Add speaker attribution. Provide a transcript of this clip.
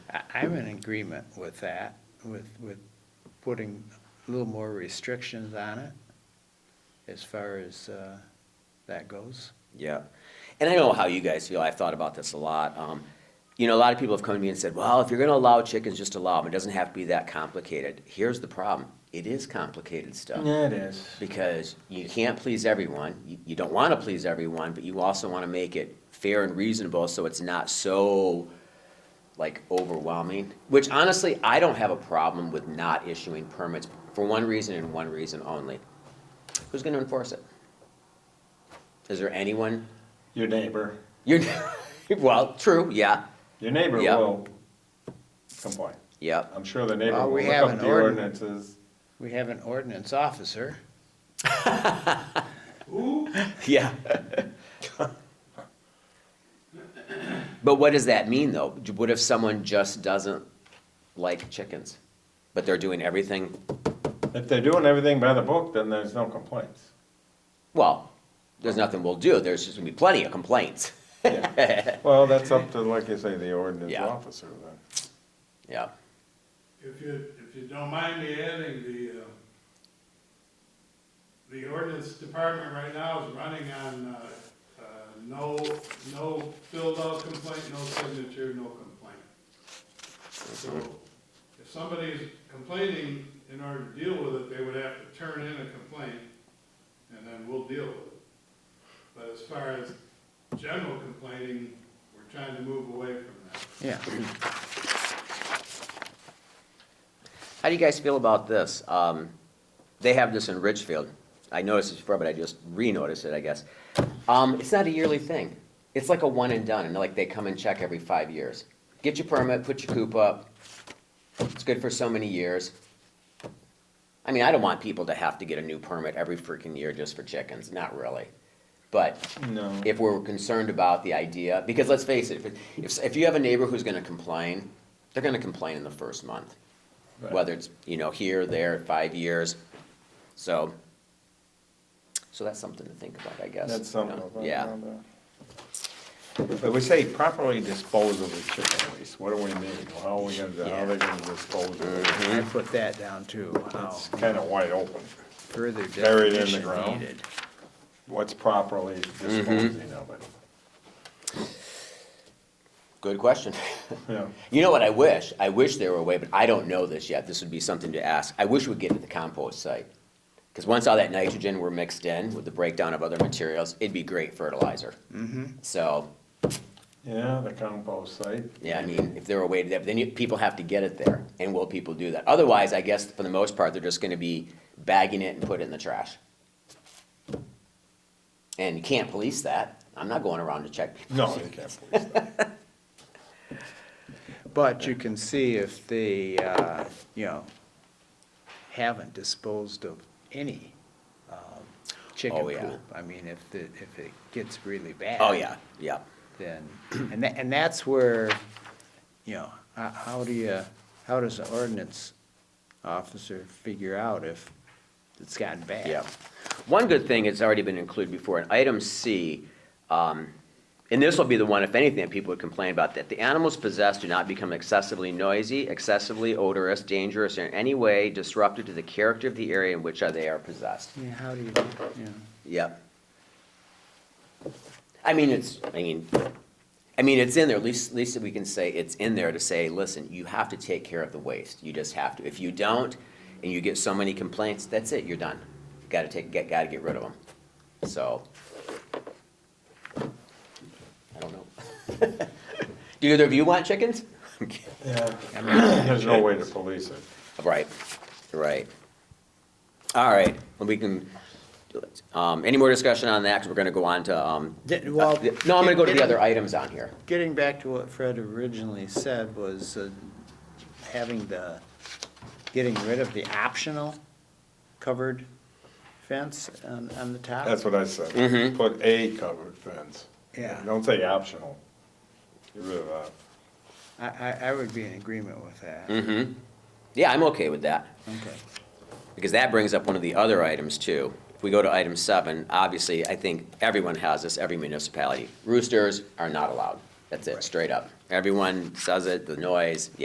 Speaker 1: I'm in agreement with that, with, with putting a little more restrictions on it as far as uh, that goes.
Speaker 2: Yeah. And I know how you guys feel. I've thought about this a lot. Um, you know, a lot of people have come to me and said, well, if you're going to allow chickens, just allow them. It doesn't have to be that complicated. Here's the problem it is complicated stuff
Speaker 3: it is.
Speaker 2: because you can't please everyone. You, you don't want to please everyone, but you also want to make it fair and reasonable so it's not so like overwhelming. Which honestly, I don't have a problem with not issuing permits for one reason and one reason only. Who's going to enforce it? Is there anyone
Speaker 3: Your neighbor,
Speaker 2: you're well, true. Yeah,
Speaker 3: your neighbor
Speaker 2: Yeah.
Speaker 3: will complain.
Speaker 2: yeah.
Speaker 3: I'm sure the neighbor
Speaker 1: Well,
Speaker 3: will
Speaker 1: we
Speaker 3: look
Speaker 1: have
Speaker 3: up
Speaker 1: an
Speaker 3: the
Speaker 1: ordin-
Speaker 3: ordinances.
Speaker 1: We have an ordinance officer.
Speaker 2: Yeah. but what does that mean, though? What if someone just doesn't like chickens, but they're doing everything?
Speaker 3: If they're doing everything by the book, then there's no complaints.
Speaker 2: Well, there's nothing we'll do. There's just gonna be plenty of complaints.
Speaker 3: Yeah. Well, that's up to, like you say, the ordinance
Speaker 2: Yeah.
Speaker 3: officer then.
Speaker 2: Yeah.
Speaker 4: If you, if you don't mind me adding, the, uh, the ordinance department right now is running on, uh, uh, no, no filled out complaint, no signature, no complaint. So if somebody's complaining, in order to deal with it, they would have to turn in a complaint, and then we'll deal with it. But as far as general complaining, we're trying to move away from that.
Speaker 1: Yeah.
Speaker 2: How do you guys feel about this? Um, they have this in Ridgefield. I noticed this before, but I just re-noticed it, I guess. Um, it's not a yearly thing. It's like a one and done, and like they come and check every five years. Get your permit, put your coop up. It's good for so many years. I mean, I don't want people to have to get a new permit every freaking year just for chickens, not really. But
Speaker 3: No.
Speaker 2: if we're concerned about the idea, because let's face it, if, if, if you have a neighbor who's gonna complain, they're gonna complain in the first month.
Speaker 3: Right.
Speaker 2: Whether it's, you know, here, there, five years, so, so that's something to think about, I guess.
Speaker 3: That's something.
Speaker 2: you know?
Speaker 3: about
Speaker 2: Yeah,
Speaker 3: that. But we say properly dispose of the chicken waste. What do we mean? How are we gonna, how are they gonna dispose of it?
Speaker 2: Mm-hmm.
Speaker 1: I put that down too, how
Speaker 3: It's kinda wide open.
Speaker 1: further
Speaker 3: buried in the
Speaker 1: definition
Speaker 3: ground.
Speaker 1: needed.
Speaker 3: What's properly
Speaker 2: Mm-hmm.
Speaker 3: disposing of it?
Speaker 2: good question.
Speaker 3: Yeah.
Speaker 2: You know what I wish? I wish there were a way, but I don't know this yet. This would be something to ask. I wish we'd get to the compost site. Because once all that nitrogen were mixed in with the breakdown of other materials, it'd be great fertilizer.
Speaker 3: Mm-hmm.
Speaker 2: So,
Speaker 3: Yeah, the compost site.
Speaker 2: yeah, I mean, if there were a way to, that, then you, people have to get it there, and will people do that? Otherwise, I guess for the most part, they're just gonna be bagging it and put it in the trash. And you can't police that. I'm not going around to check people.
Speaker 3: No, you can't police that.
Speaker 1: But you can see if they, uh, you know, haven't disposed of any um, chicken
Speaker 2: Oh, yeah.
Speaker 1: coop. I mean, if, the- if it gets really bad.
Speaker 2: Oh, yeah, yeah.
Speaker 1: Then, and that, and that's where, you know, how, how do you, how does the ordinance officer figure out if it's gotten bad?
Speaker 2: Yeah. One good thing, it's already been included before, in item C, um, and this will be the one, if anything, that people would complain about, that the animals possessed do not become excessively noisy, excessively odorous, dangerous, or in any way disruptive to the character of the area in which they are possessed.
Speaker 1: Yeah, how do you, yeah,
Speaker 2: Yep. I mean, it's, I mean, I mean, it's in there, at least, at least we can say, it's in there to say, listen, you have to take care of the waste, you just have to. If you don't, and you get so many complaints, that's it, you're done. Gotta take, get, gotta get rid of them, so. I don't know. Do either of you want chickens?
Speaker 3: Yeah. There's no way to police it.
Speaker 2: Right, right. All right, well, we can, um, any more discussion on that, because we're gonna go on to, um,
Speaker 1: Did- well,
Speaker 2: uh, No, I'm gonna go to the
Speaker 1: did-
Speaker 2: other items on here.
Speaker 1: Getting back to what Fred originally said was uh, having the, getting rid of the optional covered fence on, on the top.
Speaker 3: That's what I said. Put a covered fence.
Speaker 1: Yeah.
Speaker 3: Don't say optional. Get rid of that.
Speaker 1: I, I, I would be in agreement with that.
Speaker 2: Mm-hmm. Yeah, I'm okay with that,
Speaker 1: Okay.
Speaker 2: because that brings up one of the other items too. If we go to item seven, obviously, I think everyone has this, every municipality. Roosters are not allowed. That's it, straight up. Everyone says it, the noise,